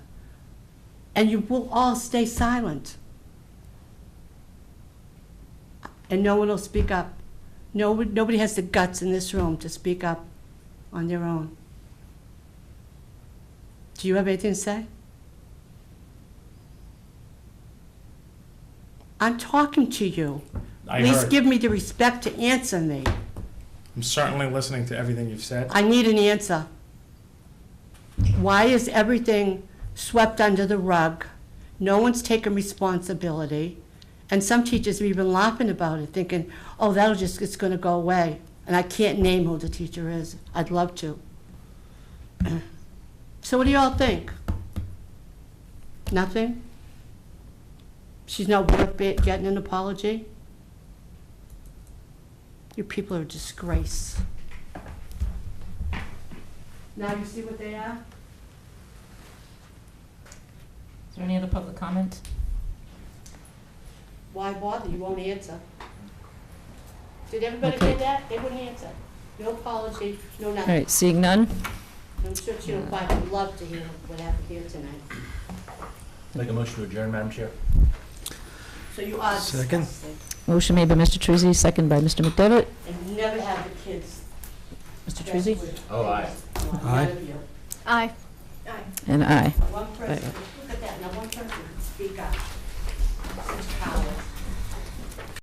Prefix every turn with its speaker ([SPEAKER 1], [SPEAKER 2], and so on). [SPEAKER 1] and you will all stay silent. And no one will speak up. No, nobody has the guts in this room to speak up on their own. Do you have anything to say? I'm talking to you.
[SPEAKER 2] I
[SPEAKER 1] Please
[SPEAKER 2] heard.
[SPEAKER 1] give me the respect to answer me.
[SPEAKER 2] I'm certainly listening to everything you've said.
[SPEAKER 1] I need an answer. Why is everything swept under the rug? No one's taken responsibility. And some teachers are even laughing about it, thinking, oh, that'll just, it's gonna go away. And I can't name who the teacher is. I'd love to. So what do y'all think? Nothing? She's not worth it getting an apology? You people are a disgrace. Now you see what they are?
[SPEAKER 3] Is there any other public comment?
[SPEAKER 1] Why bother? You won't answer. Did everybody get that? They wouldn't answer. No apology, no
[SPEAKER 3] All
[SPEAKER 1] nothing.
[SPEAKER 3] right, seeing none?
[SPEAKER 1] I'm sure Chairman Clark would love to hear what happened here tonight.
[SPEAKER 4] Make a motion to adjourn, Madam Chair.
[SPEAKER 1] So you are
[SPEAKER 5] Second.
[SPEAKER 1] disgusting.
[SPEAKER 3] Motion made by Mr. Treese, second by Mr. McDevitt.
[SPEAKER 1] And never have the kids.
[SPEAKER 3] Mr. Treese?
[SPEAKER 4] Oh, aye.
[SPEAKER 5] Aye.
[SPEAKER 1] None of you.
[SPEAKER 6] Aye.
[SPEAKER 1] Aye.
[SPEAKER 3] And aye.
[SPEAKER 1] One person, look at that, now one person can speak up. Such power.